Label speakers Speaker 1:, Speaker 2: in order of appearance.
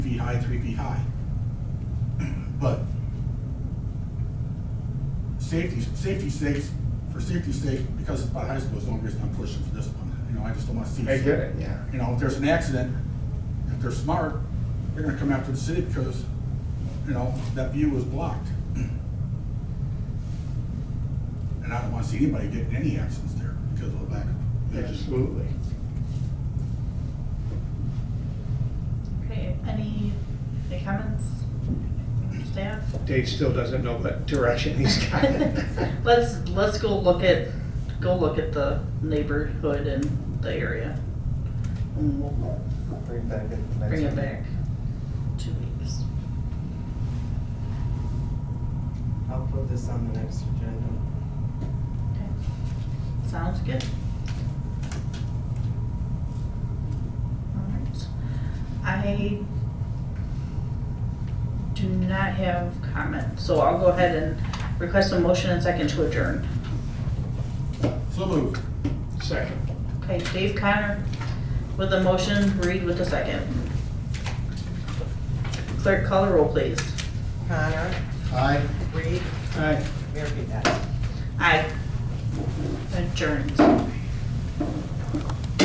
Speaker 1: high, three feet high. But safety, safety's sake, for safety's sake, because it's by high school, is the only reason I'm pushing for this one. You know, I just don't want to see.
Speaker 2: I get it, yeah.
Speaker 1: You know, if there's an accident, if they're smart, they're gonna come after the city because, you know, that view was blocked. And I don't want to see anybody get in any accidents there because of the lack of vision.
Speaker 2: Absolutely.
Speaker 3: Okay, any, any comments? Staff?
Speaker 2: Dave still doesn't know what direction he's going.
Speaker 3: Let's, let's go look at, go look at the neighborhood and the area. And we'll
Speaker 4: Bring it back in the next.
Speaker 3: bring it
Speaker 4: meeting.
Speaker 3: back two weeks.
Speaker 4: I'll put this on the next agenda.
Speaker 3: Okay. Sounds good. Alright. I do not have comment, so I'll go ahead and request a motion and second to adjourn.
Speaker 1: So moved.
Speaker 2: Second.
Speaker 3: Okay, Dave Connor with the motion, Reed with the second. Clerk, call the roll, please.
Speaker 4: Connor,
Speaker 1: Aye.
Speaker 4: Reed,
Speaker 2: Aye.
Speaker 4: Mayor Pete.
Speaker 3: Aye. Adjourned.